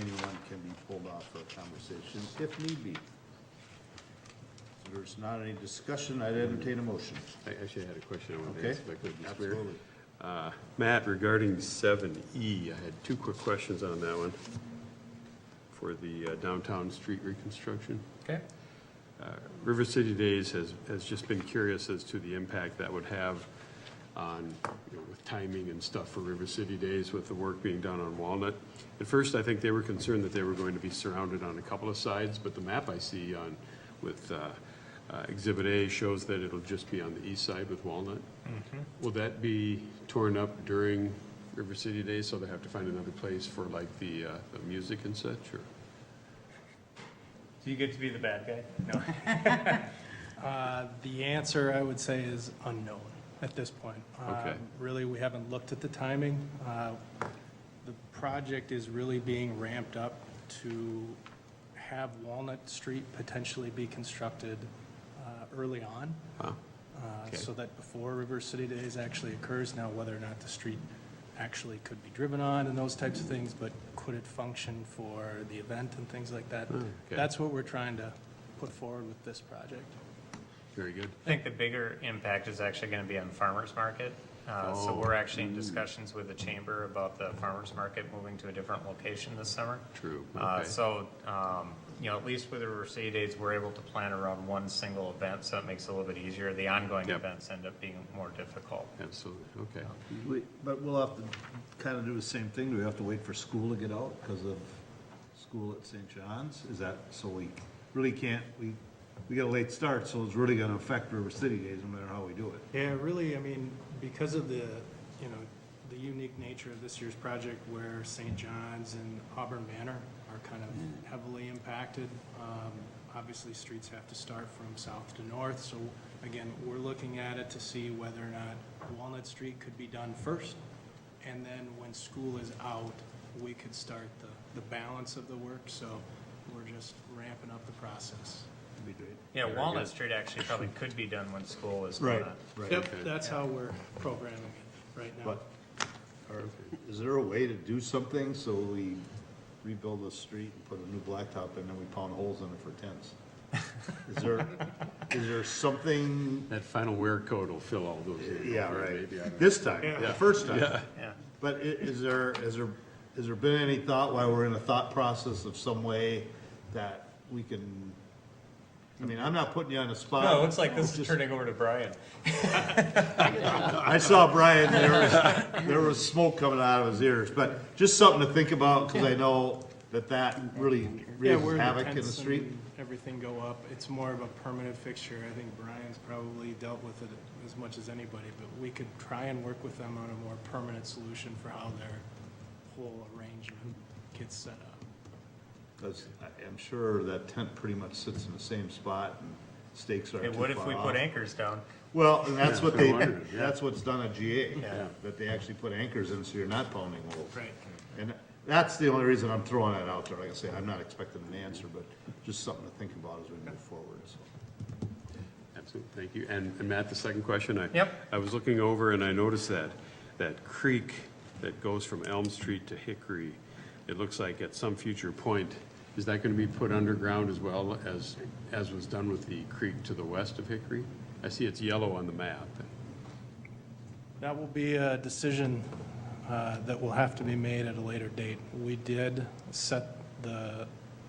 anyone can be pulled off for a conversation if need be. If There's not any discussion, I'd entertain a motion. I actually had a question on Okay. that aspect of this. where- Absolutely. Uh, Matt, regarding seven E, I had two quick questions on that one for the uh, downtown street reconstruction. Okay. Uh, River City Days has, has just been curious as to the impact that would have on, you know, with timing and stuff for River City Days with the work being done on Walnut. At first, I think they were concerned that they were going to be surrounded on a couple of sides, but the map I see on, with uh, uh, Exhibit A shows that it'll just be on the east side with Walnut. Will that be torn up during River City Days, so they have to find another place for like the, uh, the music and such, or? Do you get to be the bad guy? No. Uh, The answer, I would say, is unknown at this point. Okay. Um, Really, we haven't looked at the timing. Uh, The project is really being ramped up to have Walnut Street potentially be constructed uh, early on, Huh? uh, Okay. so that before River City Days actually occurs. Now, whether or not the street actually could be driven on and those types of things, but could it function for the event and things like that? Hmm, Okay. That's what we're trying to put forward with this project. Very good. I think the bigger impact is actually going to be on farmer's market. Uh, So Oh. we're actually in discussions with the chamber about the farmer's market moving to a different location this summer. True, Uh, okay. So, um, you know, at least with the Riverside Days, we're able to plan around one single event, so it makes it a little bit easier. The ongoing Yep. events end up being more difficult. Absolutely, okay. We- But we'll have to kind of do the same thing. Do we have to wait for school to get out because of school at St. John's? Is that, so we really can't, we, we got a late start, so it's really gonna affect River City Days no matter how we do it. Yeah, really, I mean, because of the, you know, the unique nature of this year's project where St. John's and Auburn Manor are kind Mm. of heavily impacted. um, Obviously, streets have to start from south to north, so again, we're looking at it to see whether or not Walnut Street could be done first. And then when school is out, we could start the, the balance of the work, so we're just ramping up the process. It'd be great. Yeah, Very Walnut good. Street actually probably could be done when school is gone. Right. Yep, Okay. that's how we're programming it right now. But, or is there a way to do something so we rebuild the street and put a new blacktop in and we pound holes in it for tents? Is there, is there something, That final wear code will fill all those. in. yeah, right, Maybe, I don't know. this time, the first time. Yeah. But i- is there, is there, has there been any thought, while we're in a thought process of some way that we can, I mean, I'm not putting you on the spot. No, it looks like this is Just- turning over to Brian. I saw Brian, there was, there was smoke coming out of his ears, but just something to think about, because I know that that really Yeah, raises where havoc in the tents street. and Everything go up, it's more of a permanent fixture, I think Brian's probably dealt with it as much as anybody, but we could try and work with them on a more permanent solution for how their whole arrangement gets set up. 'Cause I- I'm sure that tent pretty much sits in the same spot and stakes aren't It too would if far we off. put anchors down. Well, and that's what Yeah, I they, wondered, yeah. that's what's done at GA, Yeah. that they actually put anchors in so you're not pounding holes. Right. And that's the only reason I'm throwing that out there. Like I say, I'm not expecting an answer, but just something to think about as we move forward, so. Absolutely, thank you. And, and Matt, the second question, I. Yep. I was looking over and I noticed that, that creek that goes from Elm Street to Hickory, it looks like at some future point, is that gonna be put underground as well as, as was done with the creek to the west of Hickory? I see it's yellow on the map. That will be a decision uh, that will have to be made at a later date. We did set the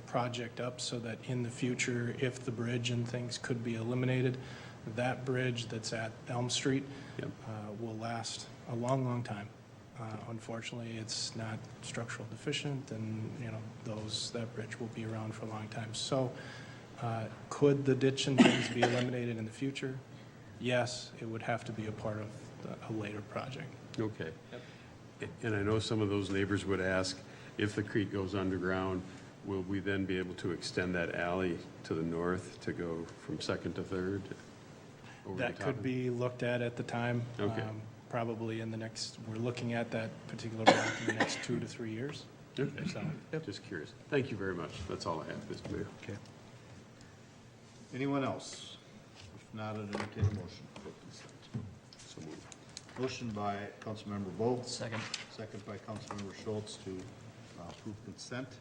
project up so that in the future, if the bridge and things could be eliminated, that bridge that's at Elm Street Yep. uh, will last a long, long time. Uh, Unfortunately, it's not structural deficient, and, you know, those, that bridge will be around for a long time. So uh, could the ditch and things be eliminated in the future? Yes, it would have to be a part of the- a later project. Okay. And I know some of those neighbors would ask, if the creek goes underground, will we then be able to extend that alley to the north to go from Second to Third? over the That top could of- be looked at at the time. Okay. um, Probably in the next, we're looking at that particular rock in the next two to three years. Okay. So, yep. Just curious. Thank you very much. That's all I have, Mr. Mayor. Okay. Anyone else? If not, I'd entertain a motion. for consent. So moved. Motion by Councilmember Bo, Second. second by Councilmember Schultz to uh, approve consent.